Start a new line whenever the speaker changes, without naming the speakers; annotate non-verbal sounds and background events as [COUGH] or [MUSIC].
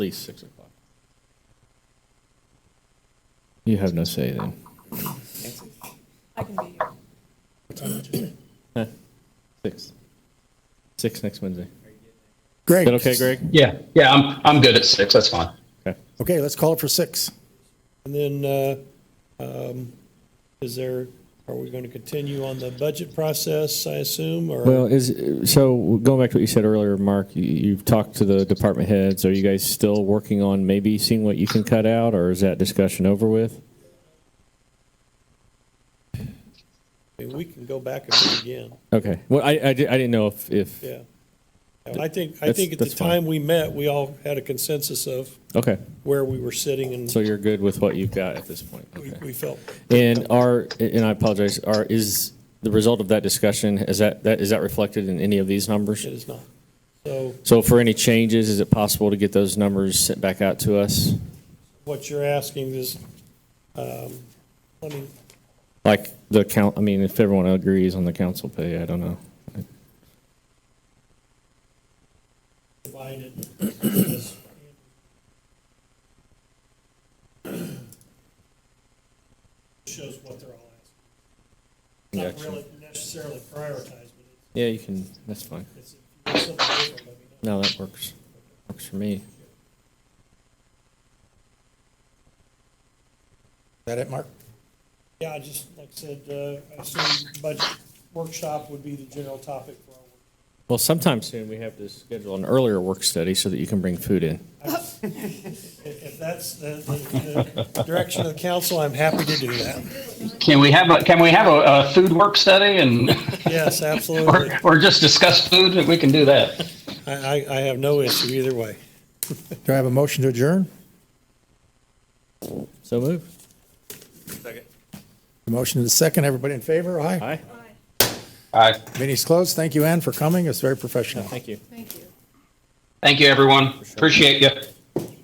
least six o'clock. You have no say then.
I can be here.
Six. Six next Wednesday. Is
Great.
that okay, Greg?
Yeah, yeah, I'm, I'm good at six. That's fine.
Okay.
Okay, let's call it for six.
And then, uh, um, is there, are we going to continue on the budget process, I assume, or?
Well, is, so going back to what you said earlier, Mark, you- you've talked to the department heads. Are you guys still working on maybe seeing what you can cut out, or is that discussion over with?
I mean, We can go back and do it again,
Okay. Well, I, I di- I didn't know if, if,
yeah. And I think, I
That's-
think at the
that's fine.
time we met, we all had a consensus of
okay.
where we were sitting and
So you're good with what you've got at this point?
we
Okay.
we felt,
And are, and I apologize, are, is the result of that discussion, is that, that, is that reflected in any of these numbers?
it is not. So
So for any changes, is it possible to get those numbers sent back out to us?
what you're asking is, um, I mean,
Like the count, I mean, if everyone agrees on the council pay, I don't know.
divided. as- [CLEARS THROAT] Shows what they're all asking. Not
Gotcha.
really necessarily prioritized, but
Yeah, you can, that's fine.
it's, it's something different, let me know.
No, that works. Works for me.
Is that it, Mark?
Yeah, I just, like I said, uh, I assume budget workshop would be the general topic for our
Well, sometime soon, we have to schedule an earlier work study so that you can bring food in.
work. If if that's the, the the direction of the council, I'm happy to do that.
Can we have a, can we have a, a food work study and,
Yes,
or,
absolutely.
or just discuss food? We can do that.
I, I, I have no issue either way.
Do I have a motion to adjourn?
So move.
A motion to the second. Everybody in favor? Aye.
Aye.
All right.
Meeting's closed. Thank you, Ann, for coming. It's very professional.
Thank you.
Thank you.
Thank you, everyone. Appreciate you.